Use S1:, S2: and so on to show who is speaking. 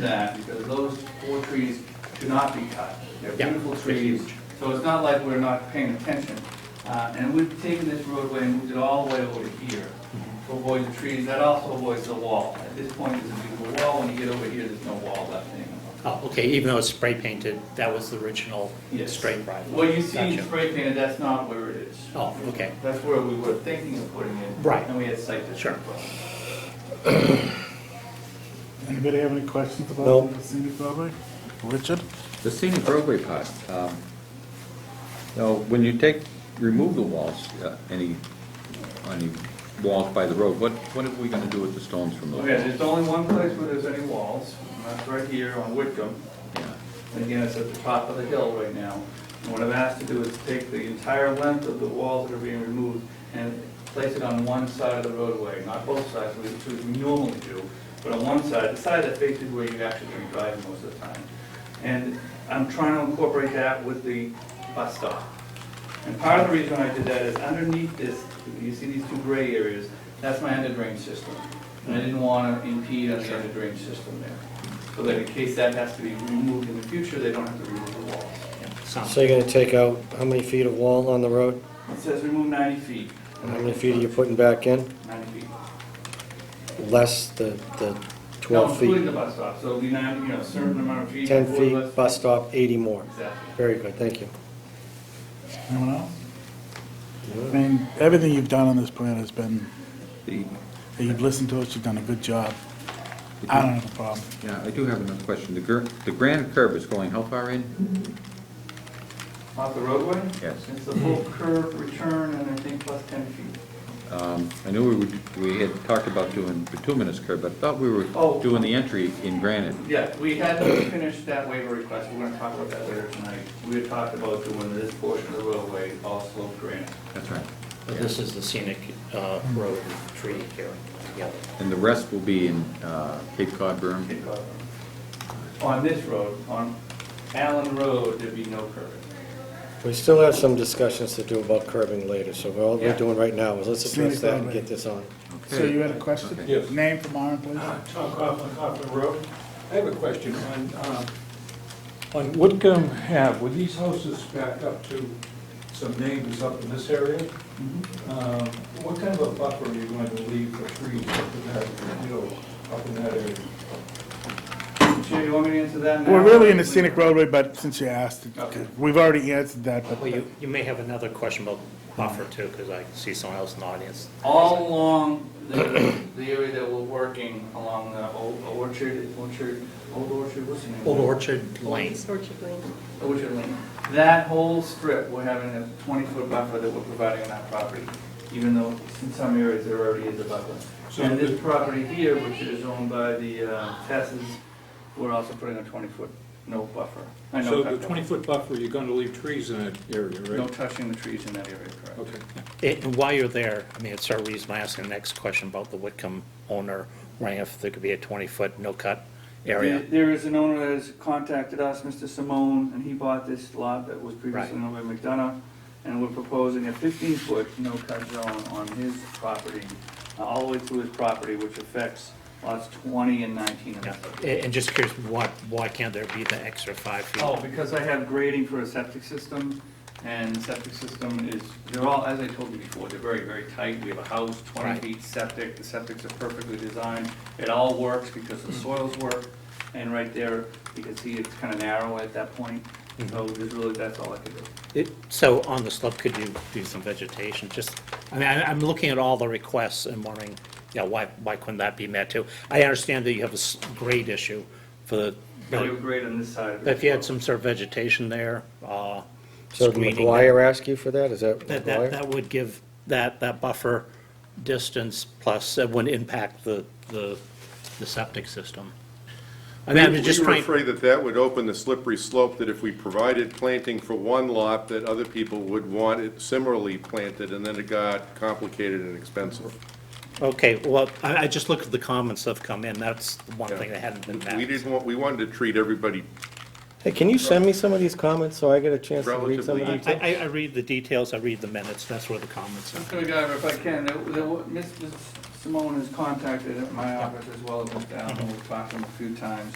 S1: that, because those four trees should not be cut. They're
S2: Yeah,
S1: beautiful
S2: they're
S1: trees,
S2: huge.
S1: so it's not like we're not paying attention. Uh, And we've taken this roadway and moved it all the way over here to avoid the trees, that also avoids the wall. At this point, there's a beautiful wall, when you get over here, there's no wall left anymore.
S2: Oh, okay, even though it's spray painted, that was the original
S1: Yes.
S2: spray drive?
S1: What you see in
S2: Gotcha.
S1: spray painted, that's not where it is.
S2: Oh, okay,
S1: That's where we were thinking of putting it.
S2: Right.
S1: And we had site distance.
S2: Sure.
S3: Anybody have any questions
S4: No.
S3: about the scenic roadway? Richard?
S5: The scenic roadway part, um, now, when you take, remove the walls, uh, any, any walls by the road, what, what are we gonna do with the stones from those?
S1: Okay,
S5: walls?
S1: there's only one place where there's any walls, and that's right here on Whitcomb.
S5: Yeah.
S1: And again, it's at the top of the hill right now. And what I'm asked to do is take the entire length of the walls that are being removed and place it on one side of the roadway, not both sides, which is what we normally do, but on one side, the side that faces where you're actually going to drive most of the time. And I'm trying to incorporate that with the bus stop. And part of the reason I did that is underneath this, you see these two gray areas, that's my under drain system. And I didn't want to impede on the under drain system there. So that in case that has to be removed in the future, they don't have to remove the walls.
S2: sounds,
S4: So you're gonna take out how many feet of wall on the road?
S1: It says remove ninety feet.
S4: And how many feet are you putting back in?
S1: Ninety feet.
S4: Less the, the
S1: No,
S4: twelve
S1: Including
S4: feet.
S1: the bus stop, so it'll be nine, you know, a certain amount of feet.
S4: Ten
S1: before the
S4: feet,
S1: bus-
S4: bus stop, eighty more.
S1: Exactly.
S4: Very good, thank you.
S3: Anyone else? I mean, everything you've done on this plan has been,
S5: The,
S3: that you've listened to us, you've done a good job. I don't have a problem.
S5: yeah, I do have another question. The gr, the grand curve is going how far in?
S1: Off the roadway?
S5: Yes.
S1: It's the full curve return and I think plus ten feet.
S5: Um, I knew we would, we had talked about doing bituminous curve, but I thought we were
S1: Oh.
S5: doing the entry in granite.
S1: Yeah, we had to finish that waiver request, we're gonna talk about that later tonight. We had talked about doing this portion of the roadway all sloped granite.
S5: That's right.
S2: but this is the scenic uh, road and tree here together.
S5: And the rest will be in, uh, Cape Cod berm.
S1: On this road, on Allen Road, there'd be no curving.
S4: We still have some discussions to do about curbing later, so all we're
S1: Yeah.
S4: doing right now is let's address
S3: Scenic
S4: that and
S3: roadway.
S4: get this on.
S3: So you had a question?
S5: Okay.
S6: Yes.
S3: Name from Myron, please.
S6: Tom Coughlin, Coughlin Road. I have a question on, uh, on Woodcomb Ave, were these houses back up to some neighbors up in this area? Um, What kind of a buffer are you going to leave for trees up in that, you know, up in that area?
S1: Chair, you want me to answer that now?
S3: We're really in the scenic roadway, but since you asked,
S1: Okay.
S3: we've already answered that,
S2: Well,
S3: but
S2: you, you may have another question about buffer too, because I see someone else in the audience.
S1: All along the, the area that we're working, along the Old Orchard, Orchard, Old Orchard, what's the name?
S2: Old Orchard Lane,
S1: Orchard Lane. That whole strip, we're having a twenty-foot buffer that we're providing on that property, even though in some areas there already is a buffer.
S6: So
S1: And this
S6: the-
S1: property here, which is owned by the uh, Tesses, we're also putting a twenty-foot no buffer. uh, no
S6: So
S1: cut
S6: the
S1: buffer.
S6: 20-foot buffer, you're going to leave trees in that area,
S1: No
S6: right?
S1: touching the trees in that area, correct?
S6: Okay.
S2: It- And while you're there, I mean, it's our reason I asked the next question about the Whitcomb owner, wondering if there could be a 20-foot no-cut area.
S1: There- There is an owner that has contacted us, Mr. Simone, and he bought this lot that was previously owned by McDonough, and we're proposing a fifteen-foot no-cut zone on his property, uh, all the way through his property, which affects lots twenty and nineteen of
S2: Yeah.
S1: that.
S2: A- And just curious, why, why can't there be the extra five feet?
S1: Oh, because I have grading for a septic system, and septic system is, they're all, as I told you before, they're very, very tight. We have a house, twenty
S2: Right.
S1: feet septic, the septics are perfectly designed. It all works because
S2: Mm-hmm.
S1: the soils work, and right there, you can see it's kind of narrow at that point.
S2: Mm-hmm.
S1: So there's really, that's all I could do.
S2: It- So on the slope, could you do some vegetation? Just, I mean, I- I'm looking at all the requests and wondering, you know, why, why couldn't that be met too? I understand that you have a s- grade issue for the,
S1: But we have grade on this side. of it
S2: but if
S1: as
S2: you had
S1: well.
S2: some sort of vegetation there, uh,
S4: So did
S2: screening.
S4: McGuire ask you for that? Is that
S2: That, that,
S4: McGuire?
S2: that would give that, that buffer distance plus, it wouldn't impact the, the, the septic system. I mean, I'm just
S7: We were
S2: trying,
S7: afraid that that would open the slippery slope, that if we provided planting for one lot, that other people would want it similarly planted, and then it got complicated and expensive.
S2: okay, well, I, I just looked at the comments that have come in, that's the one thing that hadn't been
S7: We
S2: met.
S7: didn't want, we wanted to treat everybody
S4: Hey, can you send me some of these comments so I get a chance to read some of
S7: Relatively
S4: them?
S2: I, I, I read the details, I read the minutes, that's where the comments are.
S1: Mr. McGuire, if I can, there- there wa-
S2: Mm-hmm.
S1: Mr. Simone has contacted my office as well as Mr. Allen, we've talked to him a few times.